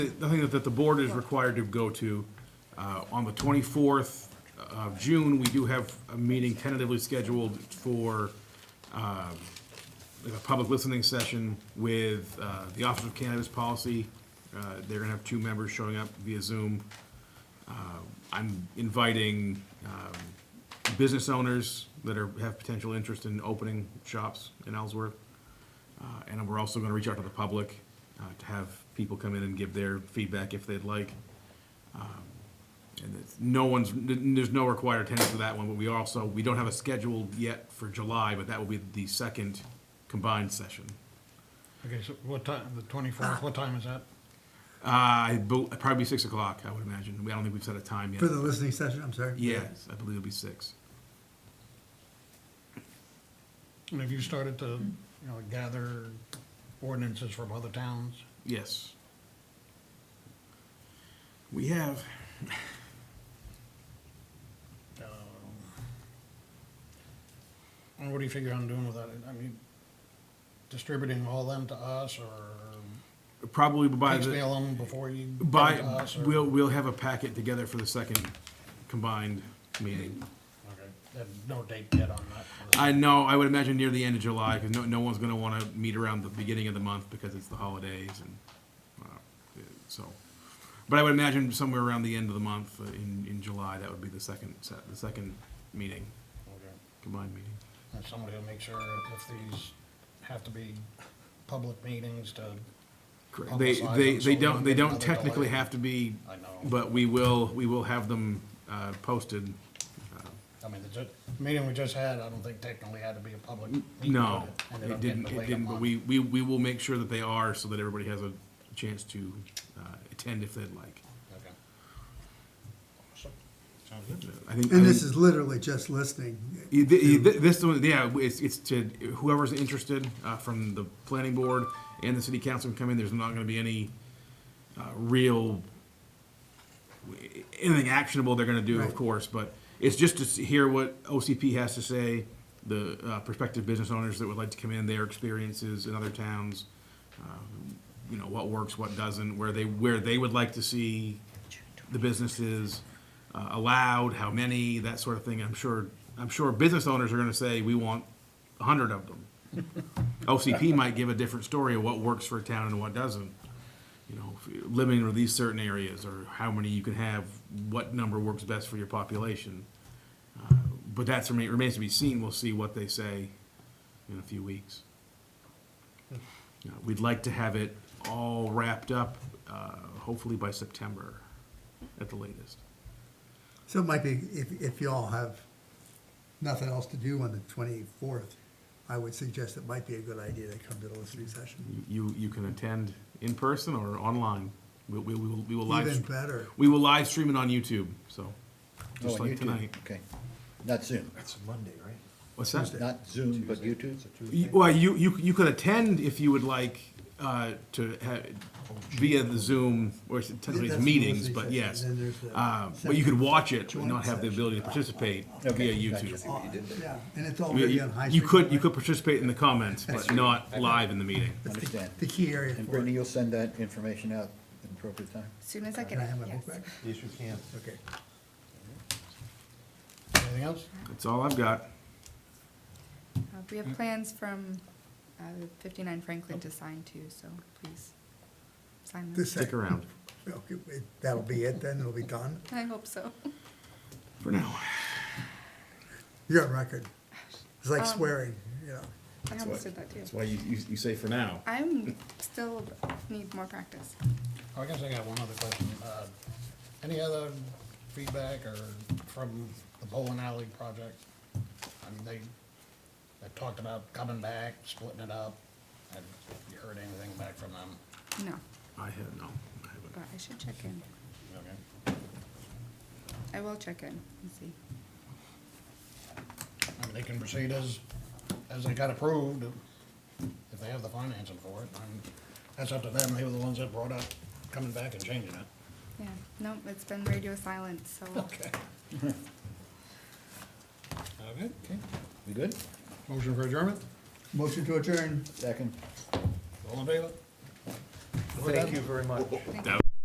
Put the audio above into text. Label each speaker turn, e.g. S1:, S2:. S1: I think that the board is required to go to, uh, on the 24th of June, we do have a meeting tentatively scheduled for um, a public listening session with uh, the Office of Cannabis Policy. Uh, They're going to have two members showing up via Zoom. Uh, I'm inviting um, business owners that are, have potential interest in opening shops in Ellsworth. Uh, And we're also going to reach out to the public uh, to have people come in and give their feedback if they'd like. Um, And it's, no one's, n- there's no required attendance for that one, but we also, we don't have a schedule yet for July, but that will be the second combined session.
S2: Okay, so what time, the twenty-fourth, what time is that?
S1: Uh, I bel- probably six o'clock, I would imagine. We I don't think we've set a time yet.
S3: For the listening session, I'm sorry.
S1: Yes, I believe it'll be six.
S2: And have you started to, you know, gather ordinances from other towns?
S1: Yes. We have,
S2: Um, And what do you figure on doing with that? I mean, distributing all them to us or
S1: probably by the.
S2: piecemeal them before you give them to
S1: By,
S2: us? or-
S1: we'll, we'll have a packet together for the second combined meeting.
S2: Okay, then no date yet on that.
S1: I know, I would imagine near the end of July, because no, no one's gonna wanna meet around the beginning of the month because it's the holidays and, uh, so. But I would imagine somewhere around the end of the month, uh, in, in July, that would be the second set, the second meeting,
S2: Okay.
S1: combined meeting.
S2: And somebody will make sure if these have to be public meetings to,
S1: Correct. They,
S2: Publicize
S1: they,
S2: them so
S1: they
S2: we
S1: don't,
S2: don't
S1: they
S2: get
S1: don't
S2: another
S1: technically
S2: delay.
S1: have to be,
S2: I know.
S1: but we will, we will have them, uh, posted.
S2: I mean, the ju- meeting we just had, I don't think technically had to be a public meeting.
S1: No,
S2: but ended
S1: it
S2: up getting
S1: didn't, it
S2: delayed a
S1: didn't, but
S2: month.
S1: we, we, we will make sure that they are so that everybody has a chance to, uh, attend if they'd like.
S2: Okay. Sounds good.
S1: I think.
S3: And
S1: I
S3: this
S1: think-
S3: is literally just listening.
S1: Yeah, th- th- This one, yeah, it's, it's to whoever's interested, uh, from the planning board and the city council can come in, there's not gonna be any, uh, real, anything actionable they're gonna do, of
S3: Right.
S1: course, but it's just to see- hear what OCP has to say, the, uh, prospective business owners that would like to come in, their experiences in other towns, um, you know, what works, what doesn't, where they, where they would like to see the businesses uh, allowed, how many, that sort of thing. I'm sure, I'm sure business owners are gonna say, we want a hundred of them. OCP might give a different story of what works for a town and what doesn't. You know, if- limiting or these certain areas, or how many you can have, what number works best for your population. Uh, But that's, remain- remains to be seen. We'll see what they say in a few weeks. You know, Uh, We'd like to have it all wrapped up, uh, hopefully by September at the latest.
S3: So it might be, if, if y'all have nothing else to do on the twenty-fourth, I would suggest it might be a good idea to come to the listening session.
S1: You, you can attend in person or online. We, we, we will, we will
S3: Even
S1: live,
S3: better.
S1: we will live stream it on YouTube, so,
S4: Oh,
S1: just
S4: on
S1: like
S4: YouTube.
S1: tonight.
S4: Okay, not Zoom,
S5: That's Monday, right?
S1: What's that?
S4: not Zoom, but YouTube?
S1: You- Well, you, you, you could attend if you would like, uh, to ha- via the Zoom, or it's technically it's
S3: That's the
S1: meetings,
S3: listening
S1: but
S3: session,
S1: yes.
S3: then there's the
S1: Uh, but you could watch it and
S3: joint
S1: not have the ability to participate via
S4: Okay, gotcha.
S1: YouTube.
S3: Oh, Yeah, and it's
S1: You-
S3: already on
S1: You
S3: high.
S1: you
S3: street,
S1: could, you
S3: right?
S1: could participate in the comments, but not live in the meeting.
S3: That's the-
S4: Understand.
S3: The key area
S4: And
S3: for
S4: Brittany,
S3: it.
S4: you'll send that information out at the appropriate time?
S6: Soon as I get
S3: Can I
S6: it,
S3: have my book
S6: yes.
S3: back?
S5: Yes, you can.
S3: Okay.
S2: Anything else?
S1: That's all I've got.
S6: Uh, We
S3: Mm-hmm.
S6: have plans from uh, 59 Franklin to sign too, so please sign them.
S3: Oh. This
S1: Stick
S3: second,
S1: around
S3: okay, wait, that'll be it then, it'll be done.
S6: I hope so.
S1: for now.
S3: You're on record. It's like
S6: Um,
S3: swearing, you know.
S6: I almost did that too.
S1: why you, you, you say for now.
S6: I'm still need more practice.
S2: Oh, I guess I got one other question. Uh, Any other feedback or from the bowling alley project? I mean, they, they talked about coming back, splitting it up. Have you heard anything back from them?
S6: No,
S1: I have, no, I haven't.
S6: but I should check in.
S2: Okay.
S6: I will check in and see.
S2: I mean, they can proceed as, as they got approved, if they have the financing for it. And that's up to them. They were the ones that brought up coming back and changing it.
S6: Yeah, no, it's been radio silent, so
S2: Okay. Okay, okay.
S4: We good?
S2: Motion for adjournment?
S3: Motion to adjourn.
S4: Second?
S2: All in favor?
S5: Thank you very much.
S6: thank
S1: That